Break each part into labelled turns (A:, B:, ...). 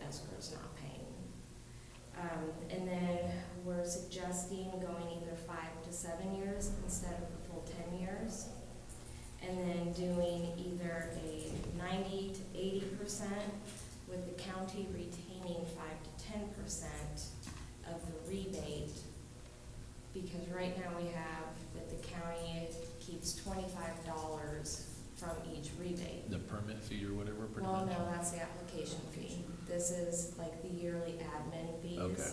A: tax group's not paying. Um, and then we're suggesting going either five to seven years instead of the full ten years. And then doing either a ninety to eighty percent with the county retaining five to ten percent of the rebate. Because right now we have that the county keeps twenty-five dollars from each rebate.
B: The permit fee or whatever, pretty
A: Well,
B: much?
A: no, that's the application fee. This is like the yearly admin fees.
B: Okay.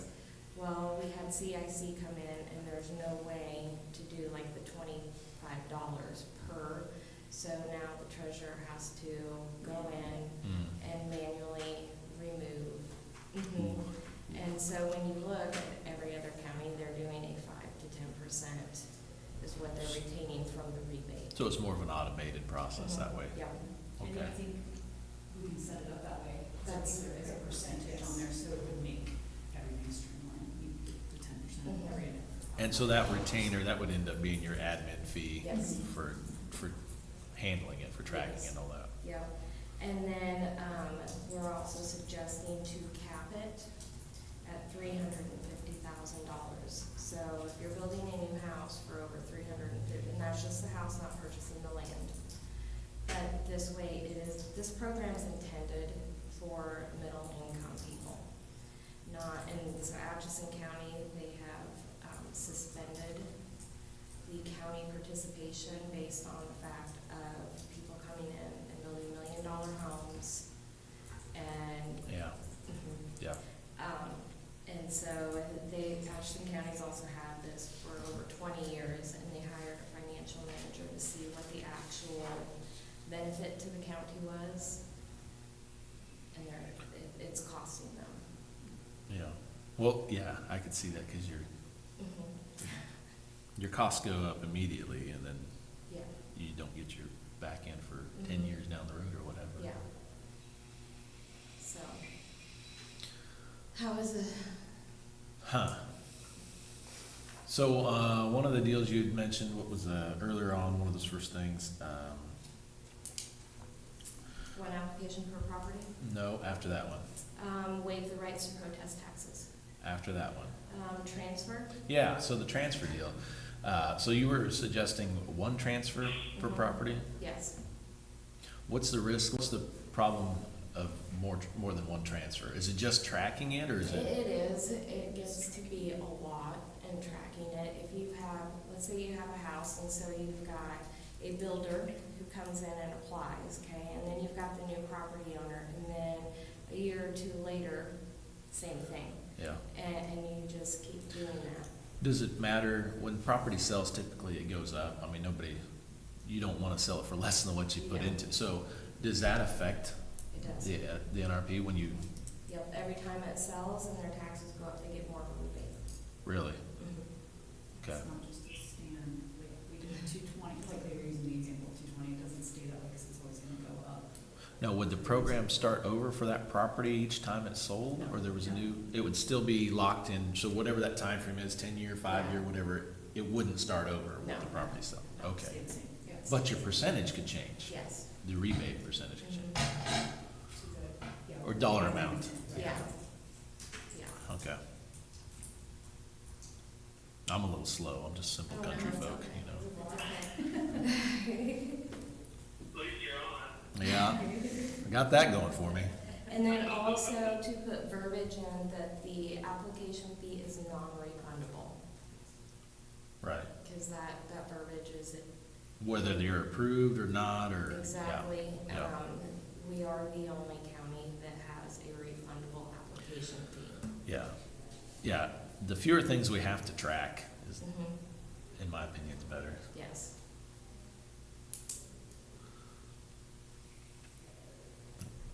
A: Well, we had CIC come in and there's no way to do like the twenty-five dollars per. So now the treasurer has to go in
B: Hmm.
A: and manually remove. Mhm.
B: Mm-hmm.
A: And so when you look at every other county, they're doing a five to ten percent is what they're retaining from the rebate.
B: So it's more of an automated process that way?
A: Yep.
C: And
B: Okay.
C: I think we can set it up that way. So I
A: That's-
C: think there is a percentage on there, so it would make everything streamlined, We get the ten percent
A: Mhm.
C: area.
B: And so that retainer, that would end up being your admin fee
A: Yes.
B: for, for handling it, for tracking
A: Yes.
B: and all that?
A: Yep, and then, um, we're also suggesting to cap it at three hundred and fifty thousand dollars. So if you're building a new house for over three hundred and fifty, and that's just the house, not purchasing the land. But this way, it is, this program's intended for middle-income people, not, and so Atchison County, they have, um, suspended the county participation based on the fact of people coming in and building million-dollar homes. And,
B: Yeah, yeah.
A: um, and so they, Ashland County's also had this for over twenty years, and they hired a financial manager to see what the actual benefit to the county was. And they're, it, it's costing them.
B: Yeah, well, yeah, I could see that, cause your, your costs go up immediately, and then
A: Yeah,
B: you don't get your back end for ten
A: Mhm.
B: years down the road or whatever.
A: yeah. So. How is it?
B: Huh. So, uh, one of the deals you had mentioned, what was, uh, earlier on, one of those first things, um,
A: One application per property,
B: no, after that one,
A: um, waive the rights to protest taxes,
B: after that one.
A: um, transfer.
B: Yeah, so the transfer deal. Uh, so you were suggesting one transfer per
A: Mhm.
B: property?
A: Yes,
B: What's the risk, what's the problem of more, more than one transfer? Is it just tracking it, or
A: it
B: is it?
A: it is, it gets to be a lot in tracking it. If you have, let's say you have a house and so you've got a builder who comes in and applies, okay? And then you've got the new property owner and then a year or two later, same thing.
B: Yeah.
A: And, and you just keep doing that.
B: Does it matter, when property sells, typically it goes up, I mean, nobody, you don't wanna sell it for less than what you put
A: Yeah.
B: into, so does that affect
A: It does.
B: the, uh, the NRP when you,
A: Yep, every time it sells and their taxes go up, they get more of a rebate. Mm-hmm.
B: really? Okay,
C: It's not just a stand, like, we did two twenty, like they were using the example, two twenty, it doesn't stay that way, because it's always gonna go up.
B: now, would the program start over for that property each time it's sold, or there was a new, it would still be locked in, so whatever that time frame is, ten year, five year, whatever, it wouldn't start over
A: No.
B: with the property sell, okay.
C: Stay the same, yeah. it's-
B: But your percentage could change,
A: Yes. Mm-hmm.
B: the rebate percentage could change,
C: it's a- yeah.
B: or dollar amount.
A: Yeah, yeah.
B: Okay. I'm a little slow, I'm just simple
A: Oh, no,
B: country
A: it's
B: folk,
A: okay.
B: you know.
A: It's
B: Yeah,
A: okay.
B: I got that going for me.
A: And then also to put verbiage in that the application fee is non-refundable,
B: Right,
A: because that, that verbiage is
B: whether they're approved or not, or, yeah.
A: exactly,
B: yeah.
A: um, we are the only county that has a refundable application fee.
B: Yeah, yeah, the fewer things we have to track is,
A: Mhm,
B: in my opinion, the better.
A: Yes.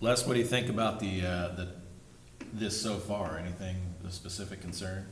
B: Les, what do you think about the, uh, the, this so far? Anything, a specific concern?